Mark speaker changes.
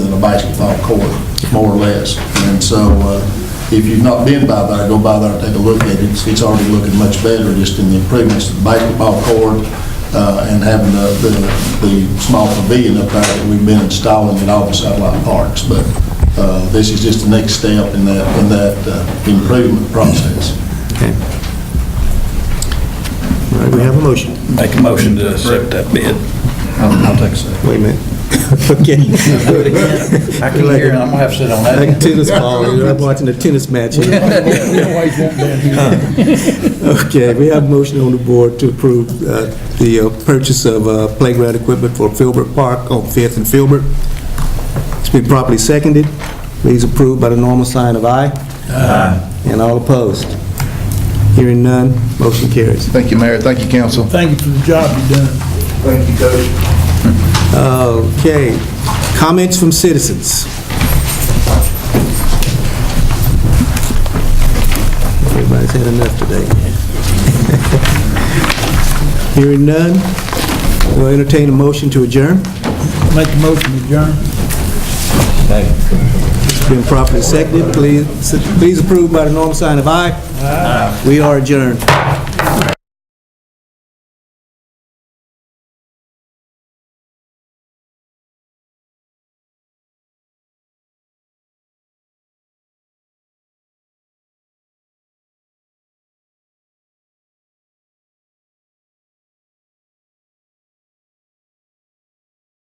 Speaker 1: basketball court, more or less. And so uh, if you've not been by there, go by there and take a look at it. It's- It's already looking much better, just in the improvements to the basketball court uh, and having the, the- the small pavilion up there that we've been installing at all the satellite parks. But uh, this is just the next step in that, in that uh, improvement process.
Speaker 2: Okay. All right, we have a motion.
Speaker 3: Make a motion to accept that bid. I'll take a second.
Speaker 2: Wait a minute. Okay.
Speaker 3: I can hear, it. I'm gonna have to sit on that.
Speaker 2: Like tennis ball, you know, I'm watching a tennis match. Okay, we have a motion on the board to approve uh, the uh, purchase of uh, playground equipment for Filbert Park on Fifth and Filbert. It's been properly seconded. Please approve by the normal sign of aye. Aye. And all opposed. Hearing none, motion carries.
Speaker 4: Thank you, Mayor. Thank you, council.
Speaker 5: Thank you for the job you've done.
Speaker 4: Thank you, Coach.
Speaker 2: Okay, comments from citizens. Everybody's had enough today. Hearing none, we'll entertain a motion to adjourn.
Speaker 5: Make a motion to adjourn.
Speaker 2: It's been properly seconded. Please please approve by the normal sign of aye. We are adjourned.